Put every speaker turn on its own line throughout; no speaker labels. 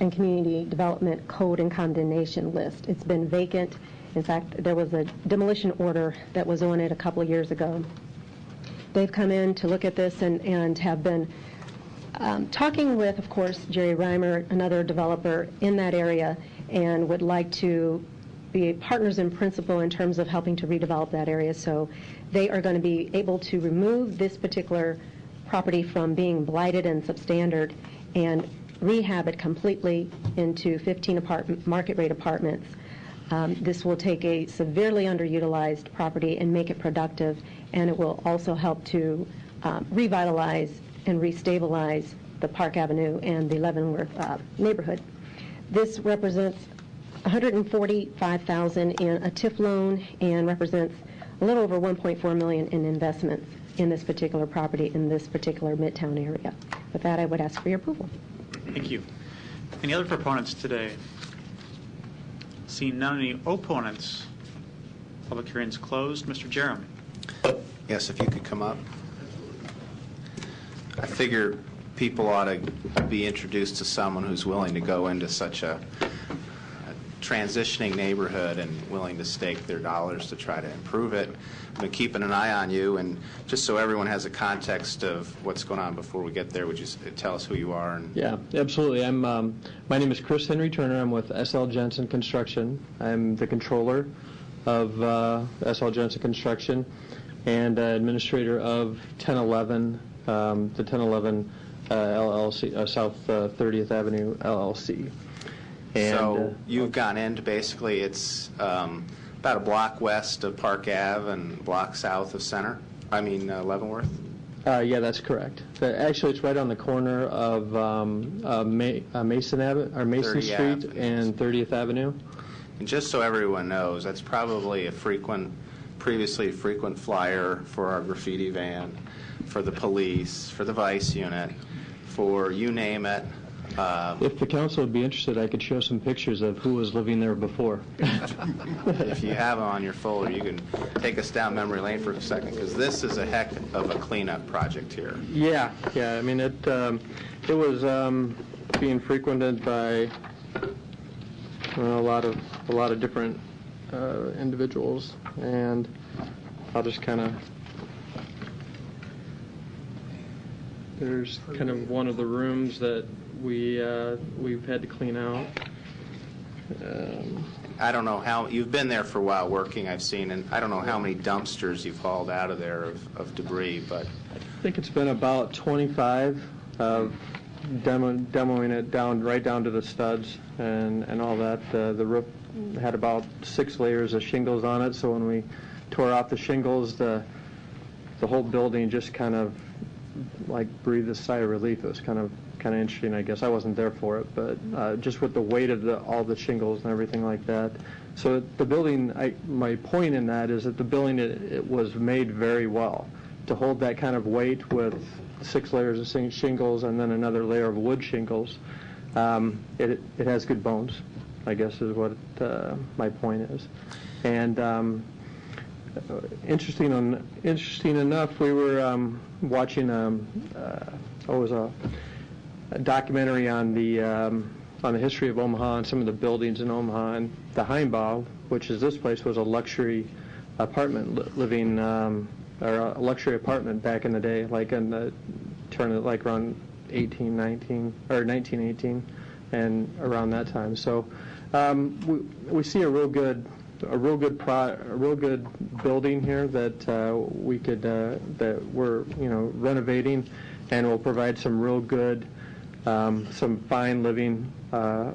and Community Development Code and Condemnation List. It's been vacant. In fact, there was a demolition order that was on it a couple of years ago. They've come in to look at this and, and have been um, talking with, of course, Jerry Reimer, another developer in that area, and would like to be partners in principle in terms of helping to redevelop that area. So they are going to be able to remove this particular property from being blighted and substandard and rehab it completely into 15 apartment, market rate apartments. Um, This will take a severely underutilized property and make it productive, and it will also help to um, revitalize and restabilize the Park Avenue and the Leavenworth uh, neighborhood. This represents 145000 in a TIF loan and represents a little over $1.4 million in investments in this particular property, in this particular Midtown area. With that, I would ask for your approval.
Thank you. Any other proponents today? Seeing none, any opponents? Public hearing's closed. Mr. Jerem?
Yes, if you could come up. I figure people ought to be introduced to someone who's willing to go into such a a transitioning neighborhood and willing to stake their dollars to try to improve it. I've been keeping an eye on you, and just so everyone has a context of what's going on before we get there, would you s- tell us who you are? and-
Yeah, absolutely. I'm, um, my name is Chris Henry Turner. I'm with SL Jensen Construction. I'm the controller of uh, SL Jensen Construction and uh, administrator of 1011, um, the 1011 uh, LLC, uh, South uh, 30th Avenue LLC. And,
So
uh,
you've gone into, basically, it's um, about a block west of Park Ave and a block south of Center, I mean uh, Leavenworth?
Uh, yeah, that's correct. Uh, Actually, it's right on the corner of um, uh, Ma- uh, Mason Ave, or Mason
30th
Street
Ave.
and 30th Avenue.
And just so everyone knows, that's probably a frequent, previously frequent flyer for our graffiti van, for the police, for the vice unit, for you name it. Uh,
If the council would be interested, I could show some pictures of who was living there before.
If you have on your folder, you can take us down memory lane for a second, because this is a heck of a cleanup project here.
Yeah, yeah, I mean, it, um, it was, um, being frequented by, well, a lot of, a lot of different, uh, individuals, and I'll just kind of, there's kind of one of the rooms that we, uh, we've had to clean out. Um,
I don't know how, you've been there for a while working, I've seen, and I don't know how many dumpsters you've hauled out of there of of debris, but
I think it's been about 25 of demo- demoing it down, right down to the studs and, and all that. Uh, The roof had about six layers of shingles on it, so when we tore out the shingles, the, the whole building just kind of like breathed a sigh of relief. It was kind of, kind of interesting, I guess. I wasn't there for it, but uh, just with the weight of the, all the shingles and everything like that. So the building, I, my point in that is that the building, it, it was made very well. To hold that kind of weight with six layers of sing- shingles and then another layer of wood shingles, um, it, it has good bones, I guess is what uh, my point is. And um, interesting on interesting enough we were um, watching um, uh, oh, it was a, a documentary on the um, on the history of Omaha and some of the buildings in Omaha and the Heimbau which is this place was a luxury apartment li- living um, or a luxury apartment back in the day like in the turn of like around 1819 or 1918 and around that time so um, we, we see a real good a real good pro, a real good building here that uh, we could uh, that we're you know renovating, and will provide some real good, um, some fine living uh,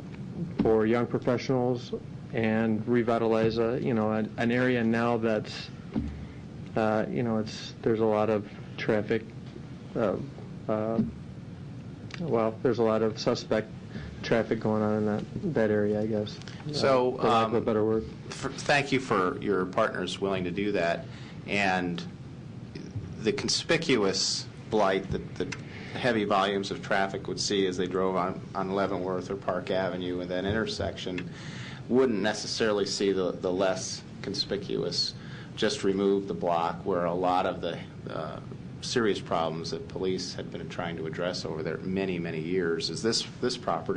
for young professionals, and revitalize a you know an, an area now that's uh, you know it's there's a lot of traffic. Uh, uh, well, there's a lot of suspect traffic going on in that, that area, I guess.
So,
uh, for lack of a
um,
better word.
for- thank you for your partners willing to do that, and the conspicuous blight that the heavy volumes of traffic would see as they drove on on Leavenworth or Park Avenue and that intersection wouldn't necessarily see the the less conspicuous, just remove the block where a lot of the uh, serious problems that police had been trying to address over there many, many years is this this property